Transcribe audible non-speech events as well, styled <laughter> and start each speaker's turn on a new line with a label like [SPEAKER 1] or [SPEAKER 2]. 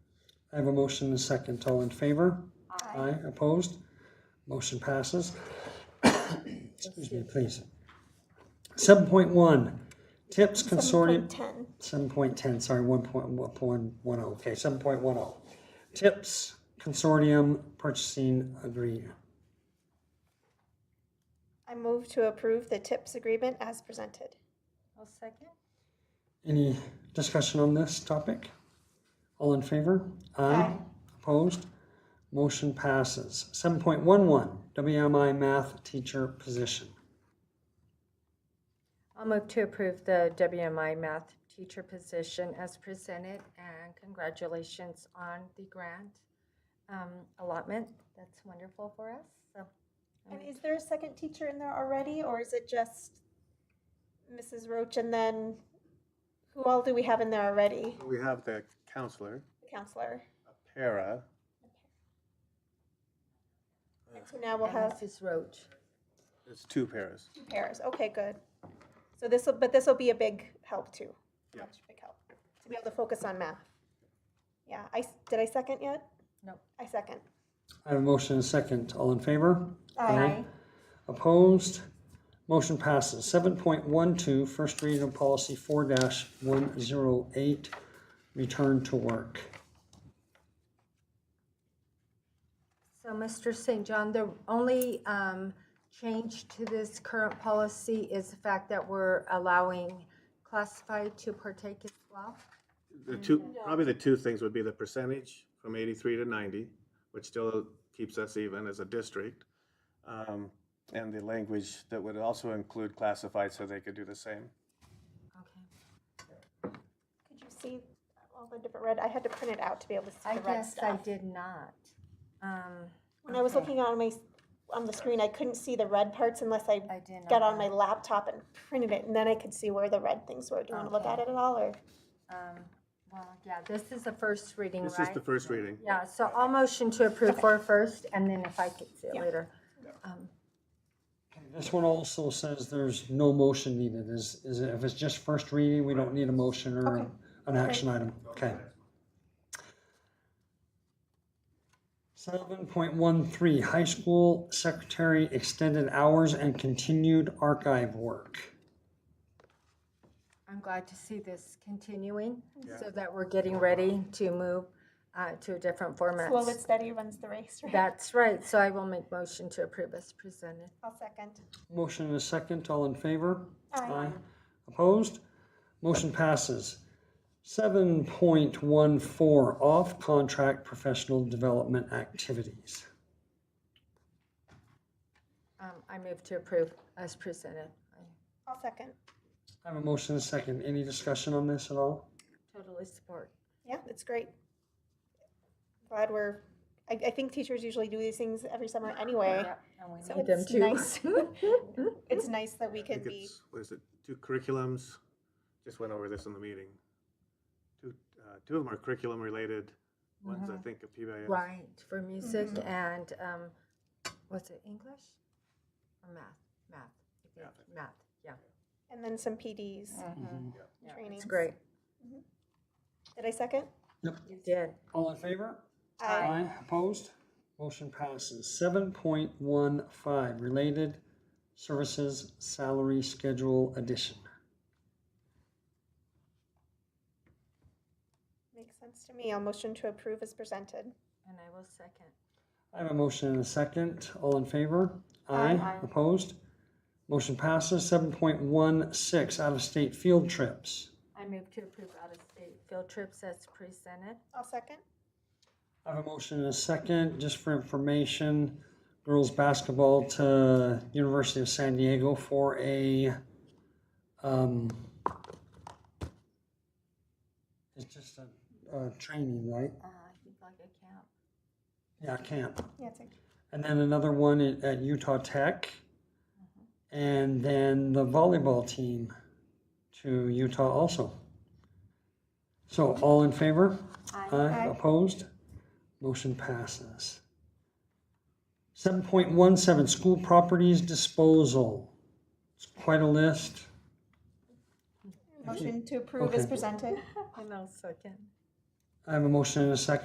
[SPEAKER 1] I have a motion and a second. All in favor? Aye. Opposed? Motion passes. <coughs> Excuse me, please. Seven point one, TIPS Consortium.
[SPEAKER 2] 7.10.
[SPEAKER 1] Seven point ten, sorry, one point, one point one oh, okay, seven point one oh. Tips Consortium Purchasing Agree,
[SPEAKER 2] I move to approve the TIPS agreement as presented.
[SPEAKER 3] I'll second.
[SPEAKER 1] any discussion on this topic? All in favor? Aye. Opposed? Motion passes. Seven point one one, WMI Math Teacher Position.
[SPEAKER 3] I'll move to approve the WMI math teacher position as presented, and congratulations on the grant um, allotment. That's wonderful for us, so.
[SPEAKER 2] And is there a second teacher in there already, or is it just Mrs. Roach and then who all do we have in there already?
[SPEAKER 4] We have the counselor,
[SPEAKER 2] The counselor.
[SPEAKER 4] a para,
[SPEAKER 2] And so now we'll have
[SPEAKER 3] Mrs. Roach.
[SPEAKER 4] it's two paras.
[SPEAKER 2] two pairs. Okay, good. So this will, but this will be a big help too.
[SPEAKER 4] Yeah.
[SPEAKER 2] Much big help to be able to focus on math. Yeah, I s- did I second yet?
[SPEAKER 3] Nope.
[SPEAKER 2] I second.
[SPEAKER 1] I have a motion and a second, all in favor? Opposed? Motion passes. Seven point one two, first reading of policy four one zero eight, return to work.
[SPEAKER 3] So, Mr. St. John, the only um, change to this current policy is the fact that we're allowing classified to partake as well.
[SPEAKER 4] The two,
[SPEAKER 3] Mm-hmm.
[SPEAKER 4] probably the two things would be the percentage from eighty-three to ninety, which still keeps us even as a district. um, And the language that would also include classified so they could do the same.
[SPEAKER 3] Okay.
[SPEAKER 2] Could you see all the different red? I had to print it out to be able to see
[SPEAKER 3] I
[SPEAKER 2] the red
[SPEAKER 3] guess I
[SPEAKER 2] stuff.
[SPEAKER 3] did not. Um,
[SPEAKER 2] When I was looking on my, on the screen, I couldn't see the red parts unless I
[SPEAKER 3] I did not
[SPEAKER 2] got on my
[SPEAKER 3] know.
[SPEAKER 2] laptop and printed it, and then I could see where the red things were. Do you want to look at it at all, or?
[SPEAKER 3] um, Well, yeah, this is the first reading,
[SPEAKER 4] This is the
[SPEAKER 3] right?
[SPEAKER 4] first reading.
[SPEAKER 3] Yeah, so I'll motion to approve for first, and then if I could see it
[SPEAKER 2] Yeah.
[SPEAKER 3] later.
[SPEAKER 1] This one also says there's no motion needed. Is, is it, if it's just first reading, we don't need a motion or an action item. Okay. Seven point one three, high school secretary extended hours and continued archive work.
[SPEAKER 3] I'm glad to see this continuing, so that we're getting ready to move uh, to a different format.
[SPEAKER 2] Slow and steady runs the race, right?
[SPEAKER 3] That's right, so I will make motion to approve as presented.
[SPEAKER 2] I'll second.
[SPEAKER 1] Motion and a second, all in favor?
[SPEAKER 2] Aye.
[SPEAKER 1] Opposed? Motion passes. Seven point one four, off-contract professional development activities.
[SPEAKER 3] Um, I move to approve as presented. I
[SPEAKER 2] I'll second.
[SPEAKER 1] I have a motion and a second. Any discussion on this at all?
[SPEAKER 3] totally support.
[SPEAKER 2] Yeah, it's great. Glad we're, I, I think teachers usually do these things every summer anyway.
[SPEAKER 3] Yep, and we
[SPEAKER 2] So
[SPEAKER 3] need them
[SPEAKER 2] it's
[SPEAKER 3] too.
[SPEAKER 2] nice. It's nice that we
[SPEAKER 4] I
[SPEAKER 2] could
[SPEAKER 4] think
[SPEAKER 2] be,
[SPEAKER 4] it's, what is it, two curriculums? Just went over this in the meeting. Two, uh, two of them are curriculum related, one's I think a
[SPEAKER 3] <laughs>
[SPEAKER 4] PBIS.
[SPEAKER 3] Mm-hmm. Right, for music and, um, what's it, English? Or math, math, I think, math, yeah.
[SPEAKER 2] and then some PDs.
[SPEAKER 3] Mm-hmm. Yeah,
[SPEAKER 2] Trainings.
[SPEAKER 3] It's great,
[SPEAKER 2] Did I second?
[SPEAKER 3] you did.
[SPEAKER 1] All in favor?
[SPEAKER 2] Aye.
[SPEAKER 1] Opposed? Motion passes. Seven point one five, related services salary schedule addition.
[SPEAKER 2] Makes sense to me. I'll motion to approve as presented.
[SPEAKER 3] And I will second.
[SPEAKER 1] I have a motion and a second. All in favor? Aye. Opposed? Motion passes. Seven point one six, out-of-state field trips.
[SPEAKER 3] I move to approve out-of-state field trips as presented.
[SPEAKER 2] I'll second.
[SPEAKER 1] I have a motion and a second, just for information, girls' basketball to University of San Diego for a, um, it's just a, a training, right?
[SPEAKER 3] Uh, I think like a camp.
[SPEAKER 1] Yeah, camp.
[SPEAKER 2] Yeah, it's okay.
[SPEAKER 1] And then another one at at Utah Tech. And then the volleyball team to Utah also. So all in favor? Aye. Opposed? Motion passes. Seven point one seven, school properties disposal. It's quite a list.
[SPEAKER 2] Motion to approve as
[SPEAKER 1] Okay.
[SPEAKER 2] presented.
[SPEAKER 3] And I'll second.
[SPEAKER 1] I have a motion and a second.